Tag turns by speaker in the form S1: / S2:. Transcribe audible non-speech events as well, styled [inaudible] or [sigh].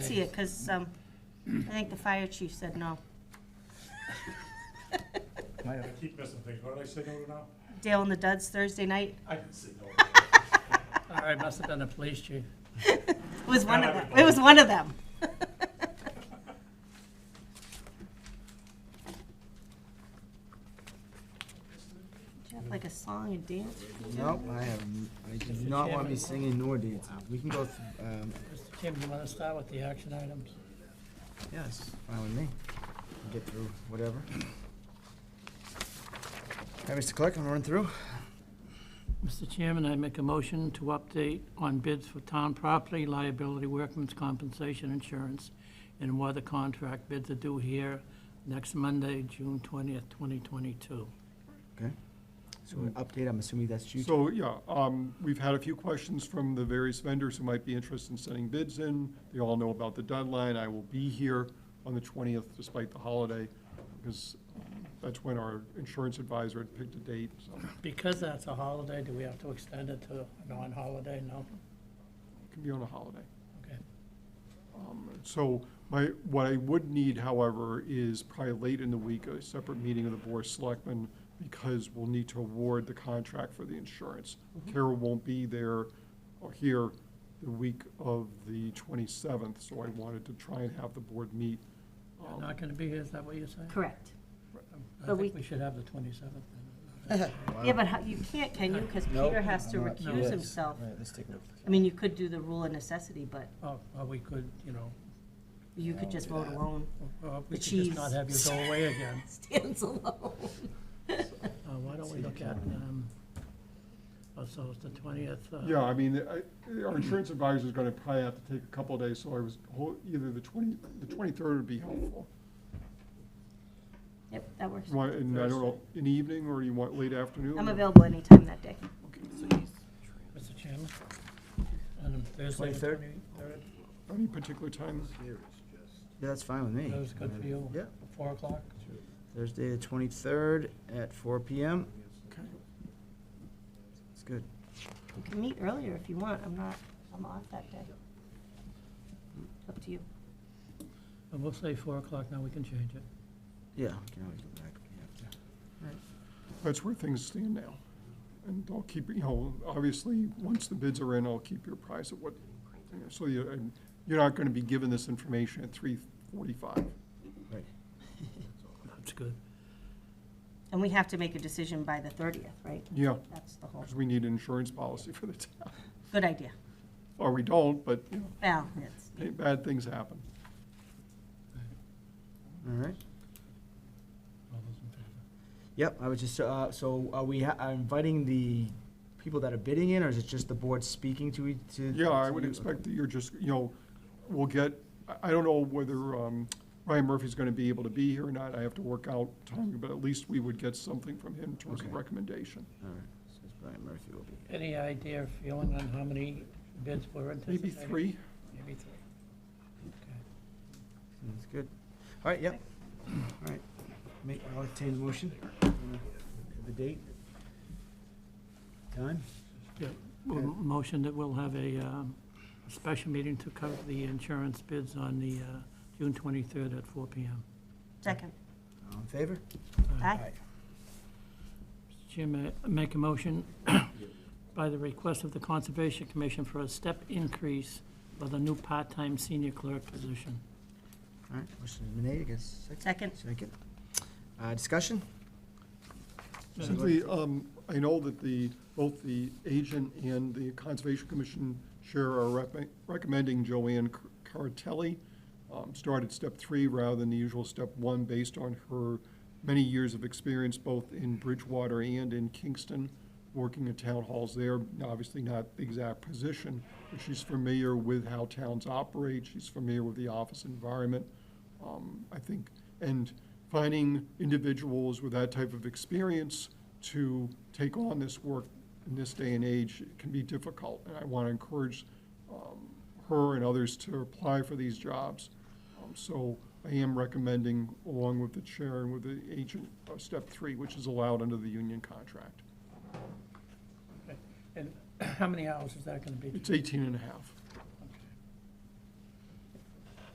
S1: see it, because I think the fire chief said no.
S2: I keep missing things. What did I say no to now?
S1: Dale and the Duds Thursday night
S2: I didn't say no.
S3: All right, must have been the police chief.
S1: It was one of them. It was one of them. [laughs] Do you have like a song and dance?
S4: Nope, I have, n- I do not want to be singing nor dancing. We can go, th- um,
S3: Mr. Kim, you want to start with the action items?
S4: yes, fine with me. Get through whatever. Hey, Mr. Clerk, I'm running through.
S3: Mr. Chairman, I make a motion to update on bids for town property liability workman's compensation insurance and weather contract bids are due here next Monday, June 20th, 2022.
S4: So an update, I'm assuming that's you.
S5: So, yeah, um, we've had a few questions from the various vendors who might be interested in sending bids in. They all know about the deadline. I will be here on the twentieth despite the holiday, because um, that's when our insurance advisor had picked a date, so it
S3: Because that's a holiday, do we have to extend it to a non-holiday? No?
S5: can be on a holiday.
S3: Okay.
S5: So my, what I would need, however, is probably late in the week, a separate meeting of the Board of Selectmen, because we'll need to award the contract for the insurance. Carol won't be there or here the week of the 27th, so I wanted to try and have the board meet. Um,
S3: You're Not going to be here, is that what you're saying?
S1: Correct.
S3: I
S1: But we-
S3: think we should have the 27th. then.
S1: Yeah, but how- you can't, can you? Because
S4: Nope,
S1: Peter has to
S4: I'm not- no,
S1: recuse
S4: let's-
S1: himself.
S4: Right, let's take a look.
S1: I mean, you could do the rule of necessity, but
S3: Or or Oh, we could, you know,
S1: you could just vote alone. [laughs]
S3: or we
S1: The
S3: could just
S1: cheese.
S3: not have you go away again.
S1: Stands alone.
S3: Uh, Why don't we look at, um, oh, so it's the 20th. uh,
S5: Yeah, I mean, I- our insurance advisor is going to probably have to take a couple of days, so I was, ho- either the 20, the 23rd would be helpful.
S1: Yep, that works.
S5: You want- And I don't know, in the evening, or you want late afternoon?
S1: I'm
S5: or-
S1: available anytime that day.
S3: Mr. Chairman? Um, On Thursday, the
S4: 23rd?
S3: 23rd?
S5: Any particular time?
S4: Yeah, that's fine with me.
S3: That was good for you?
S4: Yeah,
S3: 4 o'clock?
S4: Thursday, the twenty-third at four PM.
S5: Okay.
S4: It's good.
S1: You can meet earlier if you want. I'm not, I'm off that day. Up to you.
S3: Uh, We'll say 4 o'clock, now we can change it.
S4: Yeah, we can always go back. Yeah.
S5: That's where things stand now. And I'll keep, you know, obviously, once the bids are in, I'll keep you apprised of what, you know, so you're, you're not gonna be given this information at three forty-five.
S4: Right.
S3: That's good.
S1: And we have to make a decision by the 30th, right?
S5: Yeah,
S1: That's the whole,
S5: because we need an insurance policy for the town. [laughs]
S1: good idea.
S5: Or we don't, but, you know,
S1: Well, it's,
S5: hey, bad things happen.
S4: All right.
S3: All those in favor?
S4: Yep, I was just, uh, so are we, ha- are inviting the people that are bidding in, or is it just the board speaking to each, to?
S5: Yeah, I
S4: to
S5: would
S4: you?
S5: expect that you're just, you know, we'll get, I, I don't know whether, um, Ryan Murphy's gonna be able to be here or not. I have to work out timing, but at least we would get something from him in terms of
S4: Okay.
S5: recommendation.
S4: All right, so it's Brian Murphy will be.
S3: Any idea or feeling on how many bids were anticipated?
S5: Maybe three?
S3: Maybe three. Okay.
S4: That's good. All right, yep. All right. Make, I'll entertain the motion. The date? Time?
S3: Well,
S4: Okay.
S3: Motion that we'll have a um, special meeting to cover the insurance bids on the uh, June 23rd at 4 PM.
S1: second.
S4: All in favor?
S1: Aye.
S3: Mr. Chairman, I make a motion [coughs] by the request of the Conservation Commission for a step increase for the new part-time senior clerk position.
S4: All right, motion is made, I guess.
S1: Second.
S4: Second. Uh, discussion?
S5: Simply, um, I know that the, both the agent and the Conservation Commission chair are rec- recommending Joanne Cartelli um, start at step three rather than the usual step one, based on her many years of experience both in Bridgewater and in Kingston, working in town halls there. Now, Obviously not the exact position, but she's familiar with how towns operate. She's familiar with the office environment. Um, I think, and finding individuals with that type of experience to take on this work in this day and age can be difficult. And I want to encourage um, her and others to apply for these jobs. Um, So I am recommending, along with the chair and with the agent, uh, step three, which is allowed under the union contract.
S3: And [clears throat] how many hours is that going to be?
S5: It's 18 and a half.